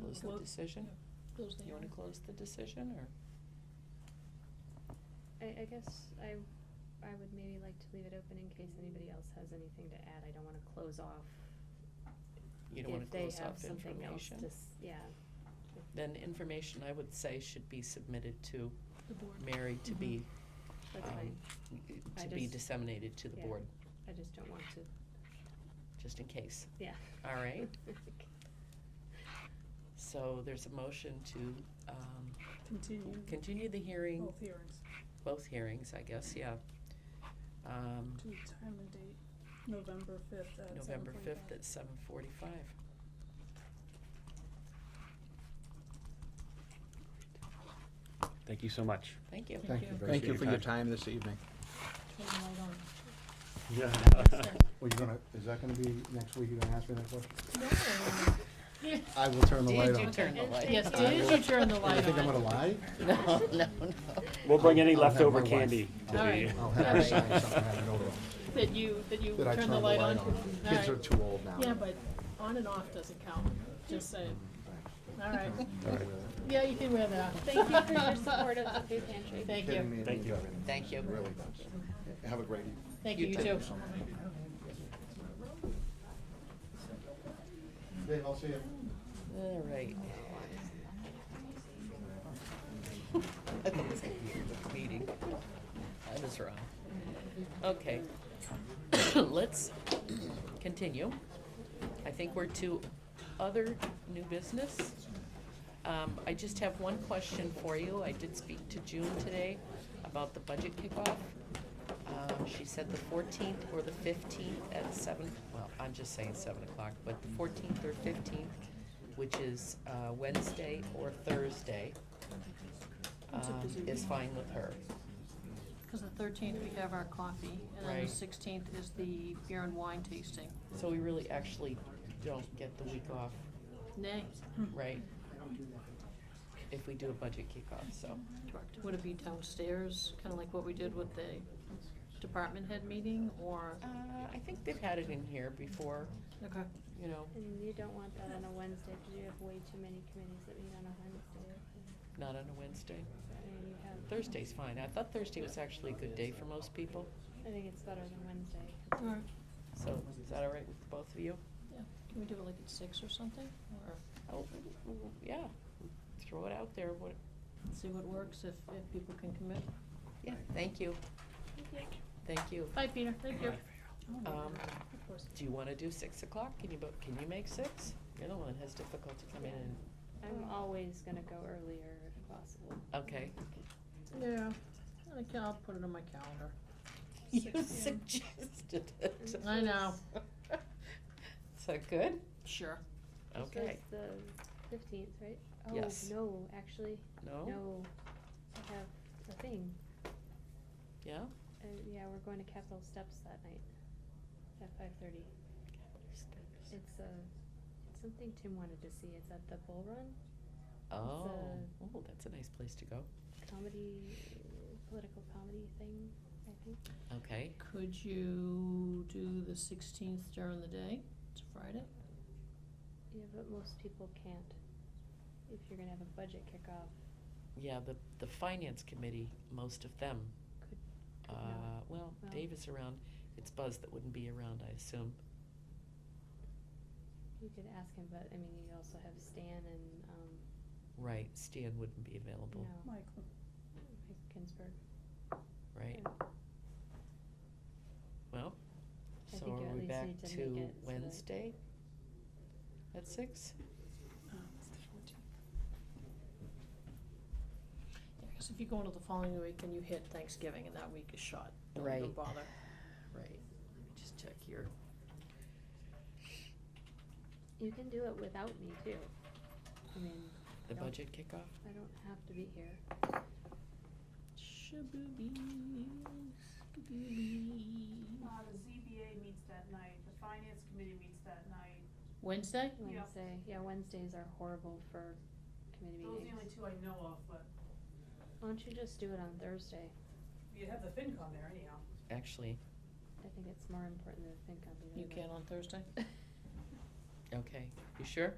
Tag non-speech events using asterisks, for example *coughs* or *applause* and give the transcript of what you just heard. Close the Close- decision? yeah, Close the You wanna hearing. close the decision, or? I, I guess I, I would maybe like to leave it open in case anybody else has anything to add. I don't wanna close off. You don't wanna close off If they have something else information? to, s- yeah. If- Then information, I would say, should be submitted to The board. Mary to Mhm. be, That's um, fine. Mm-hmm. I to be just- disseminated to the yeah. board, I just don't want to, just in case. yeah. All *laughs* right. So there's a motion to, um, Mm-hmm. Continue. continue the Oh. hearing, Both hearings both hearings, I guess, yeah. Um, to time and date, November fifth at seven November fifth forty-five. at seven forty-five. Thank you so much. Thank you. Thank Thank you. you, thank you Appreciate for your your time this evening. Turn the light *laughs* on. Yeah. *laughs* Well, you're gonna, is that gonna be next week, you're gonna ask me that question? No. I will turn the Did light on. you turn the And light? Yes, I did will- you turn the light You think I'm gonna on? lie? *laughs* *laughs* No, no, We'll bring any I'll have leftover my wife. candy to All right. the. I'll have her sign something, have it over. That you, that you That I turn the light on? All Kids are right. too old now. Yeah, but on and off doesn't count, just say, all right. Yeah, you can wear that. Thank you for *laughs* your support of the food pantry. Thank Kidding me, you, it Thank means you. everything. Thank you. It Really does. Have a great evening. thank you, you too. Dave, I'll see you. All right. *laughs* I think it's gonna be a quick meeting. I was wrong. Okay. *coughs* Let's continue. I think we're to other new business. Um, I just have one question for you. I did speak to June today about the budget kickoff. Um, she said the fourteenth or the fifteenth at seven, well, I'm just saying seven o'clock, but the fourteenth or fifteenth, which is, uh, Wednesday or Thursday, It's a um, busy is week. fine with her. Because the thirteenth, we have our coffee, and then Right. the sixteenth is the beer and wine tasting. So we really actually don't get the week off, Nay, right? If we do a budget kickoff, so, correct. Would it be downstairs, kind of like what we did with the department head meeting, or? uh, I think they've had it in here before, Okay. you know, And you don't want that on a Wednesday, because you have way too many committees that meet on a Wednesday. not on a Wednesday. And you have. Thursday's fine. I thought Thursday was actually a good day for most people. I think it's better than Wednesday. All right. So is that all right with both of you? Yeah. Can we do it like at six or something, or Oh, yeah, throw it out there, what, see what works, if, if people can commit? yeah, thank you, Thank you. thank you. Bye, Peter, thank you. Um, do you wanna do six o'clock? Can you, bo- can you make six? You're the one that has difficulty coming *laughs* in, I'm always gonna go earlier if possible. okay. Yeah, I can, I'll put it on my calendar. You 6 p.m. suggested it. I know. *laughs* Is that good? Sure. So Okay, it's the fifteenth, right? Yes. Oh. Oh, no, actually, no, no, I have the thing, yeah? uh, yeah, we're going to Capitol Steps that night at five thirty. It's a, it's something Tim wanted to see, it's at the Bull Run Oh, a- oh, that's a nice place to go, comedy, political comedy thing, I think. okay. Could you do the sixteenth during the day? It's a Friday. Yeah, but most people can't, if you're gonna have a budget kickoff, Yeah, the, the finance committee, most of them, Could- uh, could not. well, Well- Dave is around, it's Buzz that wouldn't be around, I assume. you could ask him, but, I mean, you also have Stan and, um, Right, Stan wouldn't be available, no, Michael, Mike Ginsburg. right? and Well, I so think you are at we least back need to make to it so that- Wednesday? At six? um, it's the fourteenth. Yeah, 'cause if you go into the following week and you hit Thanksgiving and that week is shot, don't even Right. bother. Right, let me just check here. You can do it without me too. I mean, The Nope. budget kickoff? I don't have to be here. Shaboobies, skaboobies. Uh, the ZBA meets that night, the finance committee meets that night. Wednesday? Yeah. Wednesday, yeah, Wednesdays are horrible for committee Those are the only meetings. two I know of, but Why don't you just do it on Thursday? you have the FinCon there anyhow. Actually, I think *laughs* it's more important than think I'll be there. You but- can on Thursday? okay, you sure?